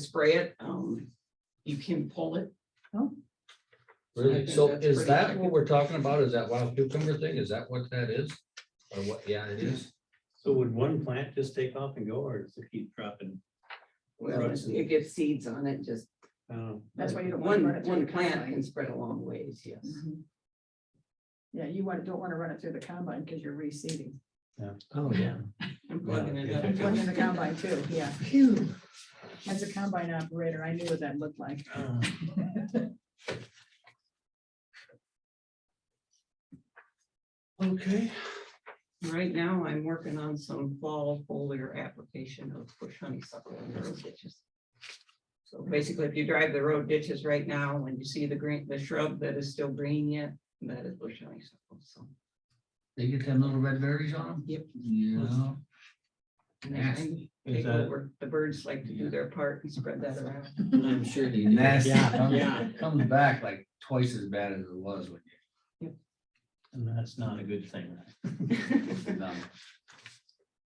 spray it, um, you can pull it. Oh. I Really? think So that's is pretty that accurate. what we're talking about? Is that wild cucumber thing? Is that what that is? Or what, yeah, it is. So would one plant just take off and go, or does it keep dropping? Well, Right. it gets seeds on it, just. I don't know. That's why you don't wanna One, run it through one the plant combine. can spread a long ways, yes. Mhm. Yeah, you want, don't want to run it through the combine because you're reseeding. Oh, yeah. I'm plugging it Yeah. I'm plugging in the up. combine too, yeah. As a combine operator, I knew what that looked like. Uh, Okay. Right now, I'm working on some fall foliar application of bush honeysuckle in the road ditches. So basically, if you drive the road ditches right now, when you see the green, the shrub that is still green yet, that is bush honeysuckle, so. They get them little red berries on them? Yep. Yeah. and they kind of Is Take that, over, the birds like to do their part and spread that around. I'm sure they. Nasty. Comes- Comes back like twice as bad as it was when and that's not a good thing. right? you. done.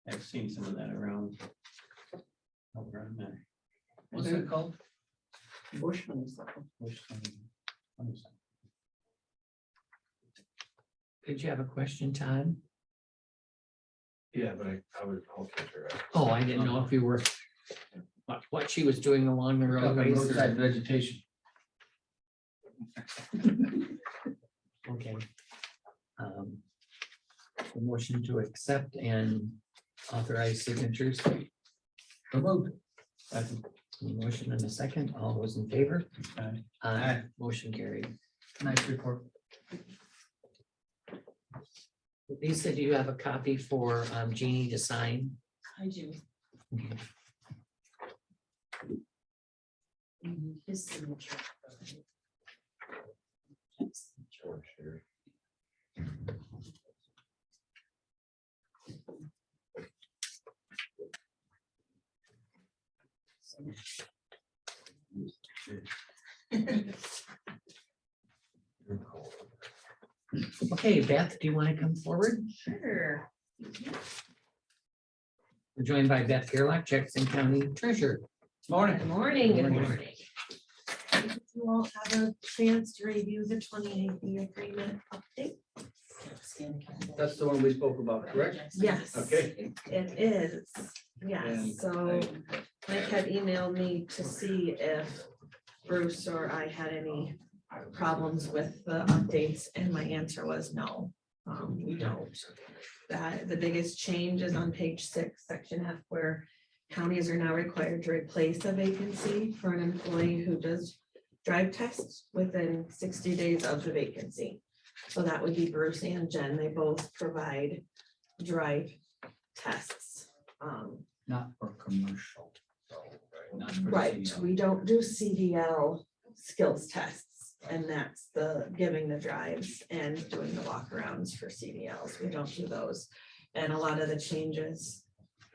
I've seen some of that around. Over on there. What's it called? Bush honeysuckle. Which one? What is that? Did you have a question, Todd? Yeah, but I, I was, I'll catch her up. Oh, I didn't know if you were. What, what she was doing along the roadways. Roadside vegetation. Okay. Um, a Motion to accept and authorize signatures. So moved. That's- Any Motion and a second. All those in favor? Aye. Aye. Motion carried. Nice report. Lisa, do you have a copy for um, Jeannie to sign? I do. Mm-hmm. Mm, His signature. George here. Okay, Beth, do you want to come forward? Sure. We're joined by Beth Gerlach, Jackson County Treasurer. Good morning, Good good morning. morning. Did You all have a chance to review the twenty eighth agreement update? That's the one we spoke about, correct? Yes. Okay. It is, And yes, so Mike had emailed me to see if Bruce or I had any problems with the updates, and my answer was no. Um, we don't. That, the biggest change is on page six, section F, where counties are now required to replace a vacancy for an employee who does drive tests within sixty days of the vacancy. So that would be Bruce and Jen, they both provide drive tests. Um, Not for commercial. though, Not for Right, CDL. we don't do CDL skills tests, and that's the giving the drives and doing the walkarounds for CDLs, we don't do those. And a lot of the changes,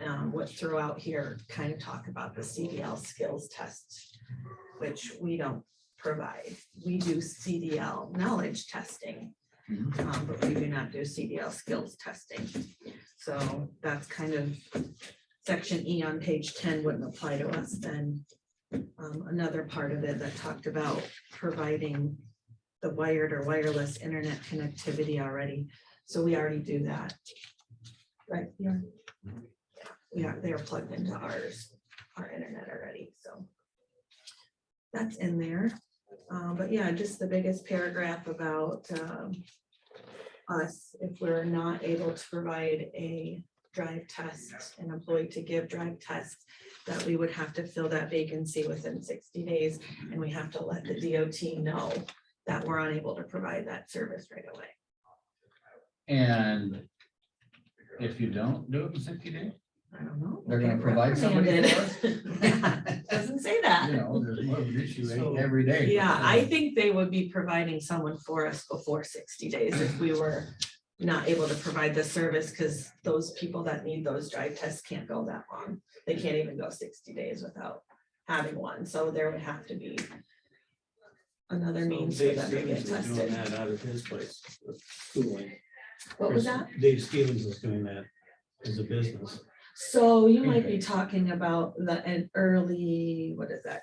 um, what throughout here kind of talk about the CDL skills test, which we don't provide, we do CDL knowledge testing. Mhm. um, but we do not do CDL skills testing, so that's kind of section E on page ten wouldn't apply to us then um, another part of it that talked about providing the wired or wireless internet connectivity already. So we already do that. Right, yeah. We are, they are plugged into ours, our internet already, so. That's in there. Uh, but yeah, just the biggest paragraph about, um, us, if we're not able to provide a drive test, an employee to give drive tests, that we would have to fill that vacancy within sixty days, and we have to let the DOT know that we're unable to provide that service right away. And if you don't do it in sixty days, I don't know. They're gonna provide somebody Reprimanded. Doesn't say that. you know, there's more of an issue So- every day. Yeah, I think they would be providing someone for us before sixty days if we were not able to provide the service, because those people that need those drive tests can't go that long. They can't even go sixty days without having one, so there would have to be another means for Dave them to get Stevens is doing tested. that out of his place, the schooling. What was that? Dave Stevens is doing that as a business. So you might be talking about the, an early, what is that